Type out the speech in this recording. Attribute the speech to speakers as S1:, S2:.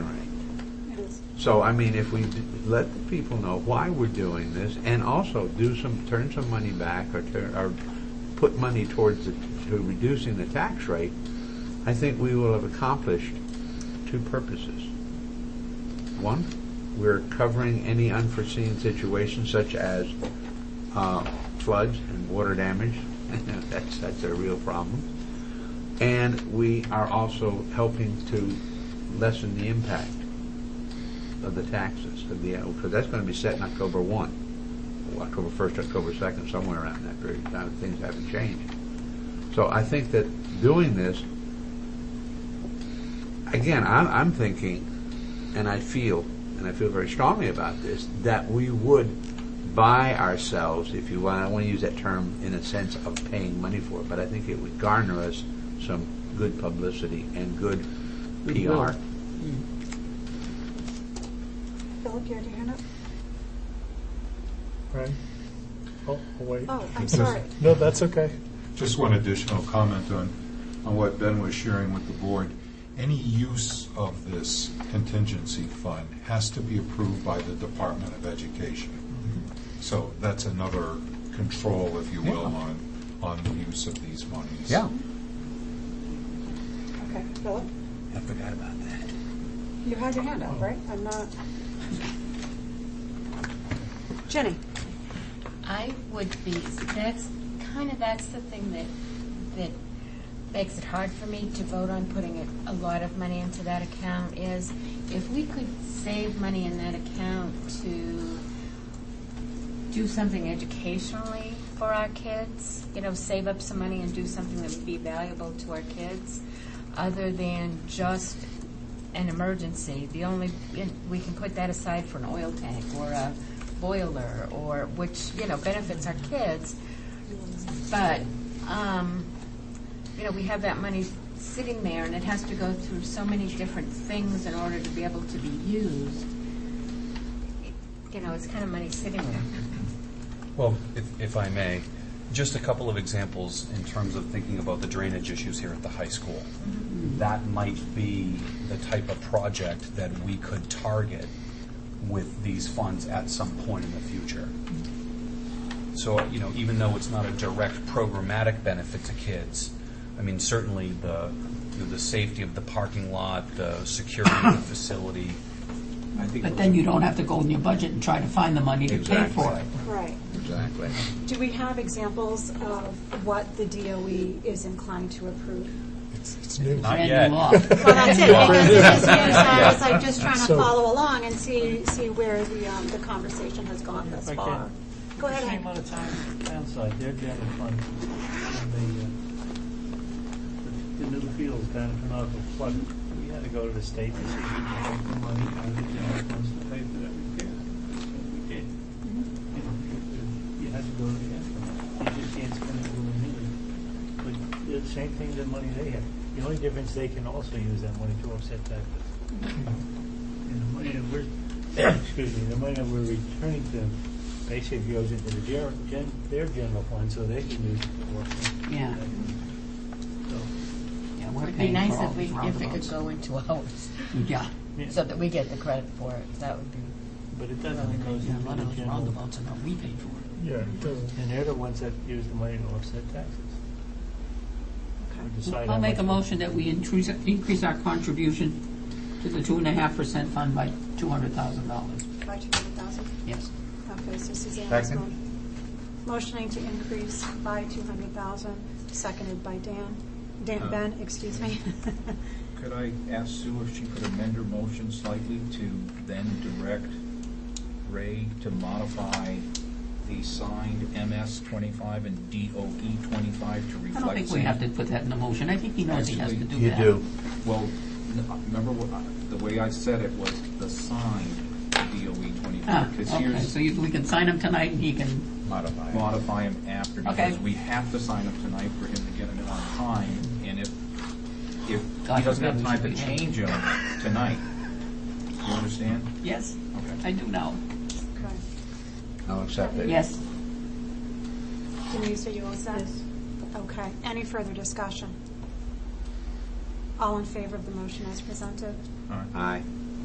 S1: So, I mean, if we d- let the people know why we're doing this, and also do some, turn some money back, or, tur- or put money towards the, to reducing the tax rate, I think we will have accomplished two purposes. One, we're covering any unforeseen situations such as uh, floods and water damage. That's, that's a real problem. And we are also helping to lessen the impact of the taxes, of the, because that's going to be set in October 1, or October 1st, October 2nd, somewhere around that period of time. Things haven't changed. So I think that doing this, again, I'm, I'm thinking, and I feel, and I feel very strongly about this, that we would buy ourselves, if you want, I want to use that term in a sense of paying money for it, but I think it would garner us some good publicity and good PR.
S2: Goodwill.
S3: Philip, you had your hand up?
S2: Right? Oh, I'll wait.
S3: Oh, I'm sorry.
S2: No, that's okay.
S4: Just one additional comment on, on what Ben was sharing with the board. Any use of this contingency fund has to be approved by the Department of Education. So that's another control, if you will, on, on the use of these monies.
S1: Yeah.
S3: Okay, Philip,
S1: I forgot about that.
S3: you had your hand up, right? I'm not. Jenny?
S5: I would be, that's kind of, that's the thing that, that makes it hard for me to vote on putting a- a lot of money into that account is if we could save money in that account to do something educationally for our kids, you know, save up some money and do something that would be valuable to our kids, other than just an emergency. The only, we can put that aside for an oil tank or a boiler or, which, you know, benefits our kids. But, um, you know, we have that money sitting there and it has to go through so many different things in order to be able to be used. You know, it's kind of money sitting there.
S6: Well, if, if I may, just a couple of examples in terms of thinking about the drainage issues here at the high school. That might be the type of project that we could target with these funds at some point in the future. So, you know, even though it's not a direct programmatic benefit to kids, I mean, certainly the, you know, the safety of the parking lot, the security of the facility, I think.
S7: But
S6: those
S7: then
S6: are-
S7: you don't have to go in your budget and try to find the money to pay for it.
S3: Right.
S1: Exactly.
S3: Do we have examples of what the DOE is inclined to approve?
S2: It's, it's new.
S6: Not
S7: Brand
S6: yet.
S7: new law.
S3: Well, that's it, because it is new, so I was like just trying to
S2: So-
S3: follow along and see, see where the, um, the conversation has gone thus
S8: If I
S3: far.
S8: can.
S3: Go ahead,
S8: Same
S3: Hank.
S8: amount of time on the town side, they're down in front and the, uh, the new fields down in Canarva flood. We had to go to the state and see if we could take the money out of the general funds to pay for that repair. And we did. You know, you- You had to go to the end. You just can't spend it willy-nilly. But the same thing, the money they have. The only difference, they can also use that money to offset that. And the money that we're, excuse me, the money that we're returning to them basically goes into the ger- gen, their general fund, so they can use it for work.
S7: Yeah.
S8: So,
S7: Yeah, we're
S5: It'd be
S7: paying
S5: nice
S7: for all
S5: if we,
S7: these
S5: if it could
S7: roundabouts.
S5: go into ours,
S7: Yeah,
S8: yeah,
S5: so that we get the credit for it, that would be.
S8: but it
S7: yeah,
S8: doesn't go into
S7: a lot
S8: the
S7: of those
S8: general.
S7: roundabouts are not we paid for.
S2: Yeah, it doesn't.
S8: And they're the ones that use the money to offset taxes. We decide how
S7: I'll make
S8: much we-
S7: a motion that we increase, increase our contribution to the two and a half percent fund by two hundred thousand dollars.
S3: By 200,000?
S7: Yes.
S3: Okay, so Suzanne has
S1: Second.
S3: mo- motioning to increase by 200,000, seconded by Dan, Dan, Ben, excuse me.
S9: Could I ask Sue if she could amend her motion slightly to then direct Ray to modify the signed MS twenty-five and DOE twenty-five to reflect?
S7: I don't think we have to put that in the motion. I think he knows he has to do
S1: You
S7: that.
S1: do.
S9: Well, n- remember what, I- the way I said it was the signed DOE
S7: Ah,
S9: twenty-five. E Because
S7: okay,
S9: here's
S7: so you, we can sign him tonight and he can,
S4: Modify.
S9: modify him after
S7: Okay.
S9: because we have to sign him tonight for him to get him in on time. And if, if he
S7: God
S9: doesn't have
S7: forbid we
S9: time to
S7: should be-
S9: change him tonight, you understand?
S7: yes,
S9: Okay.
S7: I do now.
S3: Okay.
S1: I'll accept it.
S7: Yes.
S3: Denise, are you all set? Okay, any further discussion? All in favor of the motion as presented?
S9: All right.
S1: Aye.